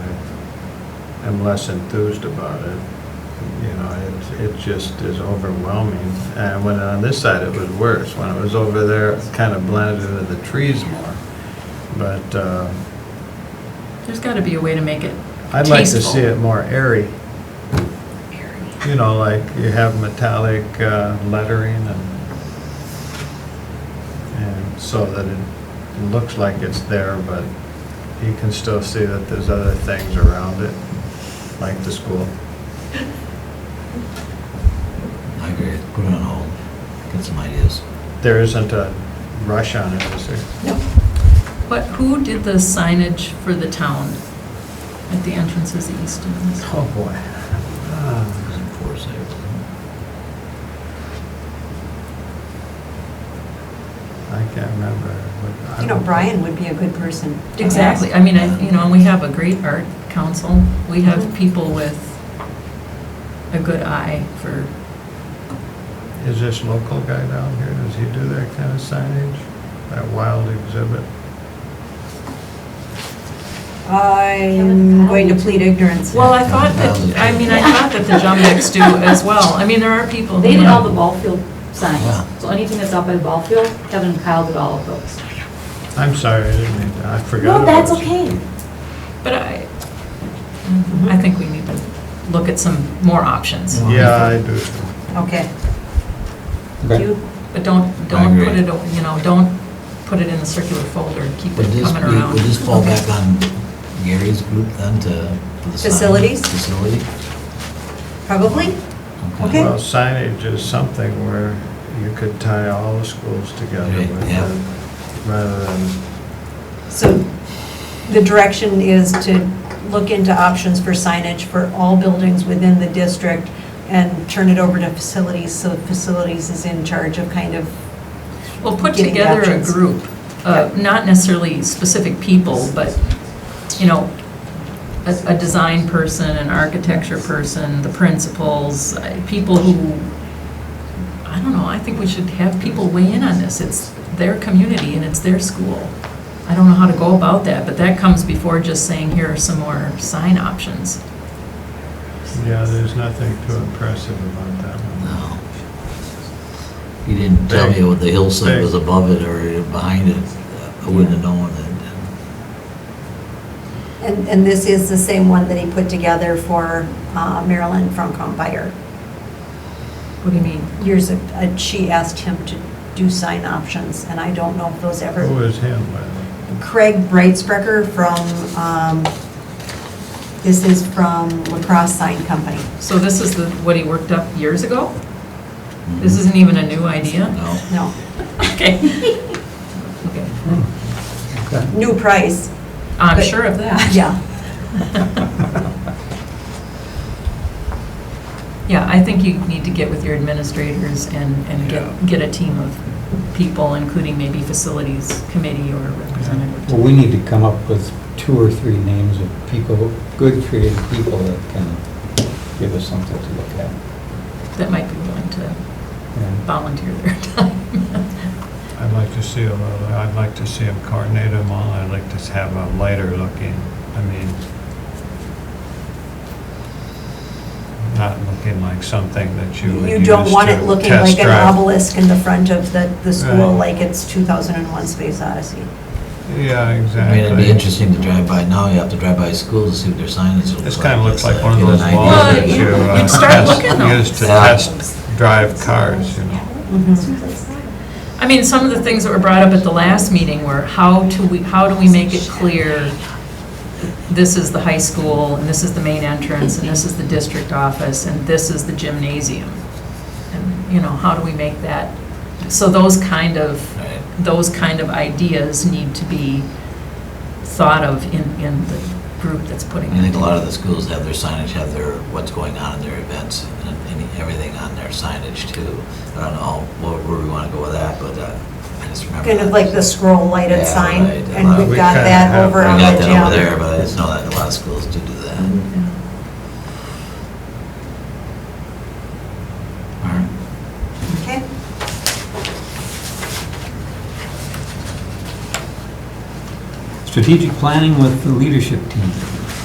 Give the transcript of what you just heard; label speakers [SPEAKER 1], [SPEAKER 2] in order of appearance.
[SPEAKER 1] am less enthused about it. You know, it, it just is overwhelming. And when on this side, it was worse. When it was over there, it kind of blended into the trees more. But, uh,
[SPEAKER 2] There's got to be a way to make it
[SPEAKER 1] I'd like to see
[SPEAKER 2] Tasteful.
[SPEAKER 1] it more airy. You know, like you have metallic uh, lettering and, and so that it looks like it's there, but you can still see that there's other things around it, like the school.
[SPEAKER 3] I agree, put it on hold, get some ideas.
[SPEAKER 1] There isn't a rush on it, is there?
[SPEAKER 2] But who did the signage for the town at the entrances east and west?
[SPEAKER 1] Oh, boy. Ah,
[SPEAKER 3] Doesn't force it.
[SPEAKER 1] I can't remember. what- I
[SPEAKER 4] You know,
[SPEAKER 1] don't-
[SPEAKER 4] Brian would be a good person. to ask.
[SPEAKER 2] Exactly, I mean, I, you know, and we have a great art council, we have people with a good eye for,
[SPEAKER 1] Is this local guy down here, does he do that kind of signage? That wild exhibit?
[SPEAKER 4] I'm going to plead ignorance.
[SPEAKER 2] well, I thought that, I mean, I thought that the Jumbics do as well, I mean, there are people. who-
[SPEAKER 5] They did all the ball field
[SPEAKER 3] Wow.
[SPEAKER 5] signs, so anything that's out by the ball field, Kevin and Kyle did all of those.
[SPEAKER 1] I'm sorry, I didn't mean to, I forgot.
[SPEAKER 5] No,
[SPEAKER 1] about
[SPEAKER 5] that's
[SPEAKER 1] this.
[SPEAKER 5] okay.
[SPEAKER 2] But I, I think we need to look at some more options,
[SPEAKER 1] Yeah, I do.
[SPEAKER 4] Okay.
[SPEAKER 3] But
[SPEAKER 4] You-
[SPEAKER 2] but don't, don't
[SPEAKER 3] agree.
[SPEAKER 2] put it, o- you know, don't put it in the circular folder, keep
[SPEAKER 3] Would
[SPEAKER 2] it
[SPEAKER 3] this,
[SPEAKER 2] coming
[SPEAKER 3] be-
[SPEAKER 2] around.
[SPEAKER 3] would this fall back on Gary's group then to? for the sign?
[SPEAKER 4] Facilities?
[SPEAKER 3] Facility?
[SPEAKER 4] Probably? Okay.
[SPEAKER 1] Well, signage is something where you could tie all the schools together
[SPEAKER 3] Right,
[SPEAKER 1] with
[SPEAKER 3] yeah.
[SPEAKER 1] it, rather than,
[SPEAKER 4] So the direction is to look into options for signage for all buildings within the district and turn it over to facilities, so facilities is in charge of kind of,
[SPEAKER 2] Well, put
[SPEAKER 4] Getting
[SPEAKER 2] together a
[SPEAKER 4] options.
[SPEAKER 2] group, uh, not necessarily specific people, but, you know, a, a design person, an architecture person, the principals, uh, people who, I don't know, I think we should have people weigh in on this. It's their community and it's their school. I don't know how to go about that, but that comes before just saying, here are some more sign options.
[SPEAKER 1] yeah, there's nothing too impressive about that one.
[SPEAKER 3] No. You didn't tell me what the hillside was above it or behind it, I wouldn't have known it.
[SPEAKER 4] and, and this is the same one that he put together for uh, Marilyn from Compire.
[SPEAKER 2] What do you mean?
[SPEAKER 4] Years, ag- uh, she asked him to do sign options, and I don't know if those ever.
[SPEAKER 1] Who was him, by the way?
[SPEAKER 4] Craig Breitsprecher from, um, this is from Lacrosse Sign Company.
[SPEAKER 2] So this is the, what he worked up years ago? This isn't even a new idea?
[SPEAKER 3] Mm-hmm. No.
[SPEAKER 4] No,
[SPEAKER 2] Okay. Okay.
[SPEAKER 4] new price.
[SPEAKER 2] I'm
[SPEAKER 4] But-
[SPEAKER 2] sure of that.
[SPEAKER 4] Yeah.
[SPEAKER 2] Yeah, I think you need to get with your administrators and, and get, get a team of people, including maybe facilities committee or representative.
[SPEAKER 6] Well, we need to come up with two or three names of people, good creative people that can give us something to look at.
[SPEAKER 2] that might be willing to
[SPEAKER 6] And
[SPEAKER 2] volunteer their time.
[SPEAKER 1] I'd like to see a little, I'd like to see them coordinate them all, I'd like to have a lighter looking, I mean, not looking like something that you would
[SPEAKER 4] You
[SPEAKER 1] use
[SPEAKER 4] don't want
[SPEAKER 1] to
[SPEAKER 4] it looking
[SPEAKER 1] test
[SPEAKER 4] like an
[SPEAKER 1] drive.
[SPEAKER 4] obelisk in the front of the, the school,
[SPEAKER 1] Right.
[SPEAKER 4] like it's 2001 Space Odyssey.
[SPEAKER 1] Yeah,
[SPEAKER 3] I mean, it'd be
[SPEAKER 1] exactly.
[SPEAKER 3] interesting to drive by, now you have to drive by schools to see what their signage looks like.
[SPEAKER 1] This kind of looks like
[SPEAKER 3] just, uh,
[SPEAKER 1] one of
[SPEAKER 3] get an
[SPEAKER 1] those
[SPEAKER 3] idea
[SPEAKER 1] walls
[SPEAKER 2] Well,
[SPEAKER 1] that
[SPEAKER 3] what-
[SPEAKER 1] you uh,
[SPEAKER 2] you'd start looking though.
[SPEAKER 1] test- use to
[SPEAKER 3] Yeah.
[SPEAKER 1] test drive cars, you know?
[SPEAKER 4] Mm-hmm.
[SPEAKER 2] I mean, some of the things that were brought up at the last meeting were how to, we, how do we make it clear this is the high school and this is the main entrance and this is the district office and this is the gymnasium? And, you know, how do we make that? So those kind of
[SPEAKER 3] Right.
[SPEAKER 2] those kind of ideas need to be thought of in, in the group that's putting
[SPEAKER 3] I think
[SPEAKER 2] it.
[SPEAKER 3] a lot of the schools have their signage, have their, what's going on in their events, and and everything on their signage too. I don't know what- where we want to go with that, but uh, I just remember.
[SPEAKER 4] Kind of
[SPEAKER 3] that.
[SPEAKER 4] like the scroll lighted
[SPEAKER 3] Yeah,
[SPEAKER 4] sign,
[SPEAKER 3] right.
[SPEAKER 4] and
[SPEAKER 3] Well,
[SPEAKER 4] we've
[SPEAKER 1] we
[SPEAKER 4] got
[SPEAKER 1] kinda
[SPEAKER 4] that
[SPEAKER 1] have-
[SPEAKER 4] over
[SPEAKER 3] We
[SPEAKER 4] on
[SPEAKER 3] got
[SPEAKER 4] the
[SPEAKER 3] that over there,
[SPEAKER 4] gym.
[SPEAKER 3] but I just know that a lot of schools do do that.
[SPEAKER 4] Mm-hmm.
[SPEAKER 3] All right.
[SPEAKER 4] Okay.
[SPEAKER 6] Strategic planning with the leadership team.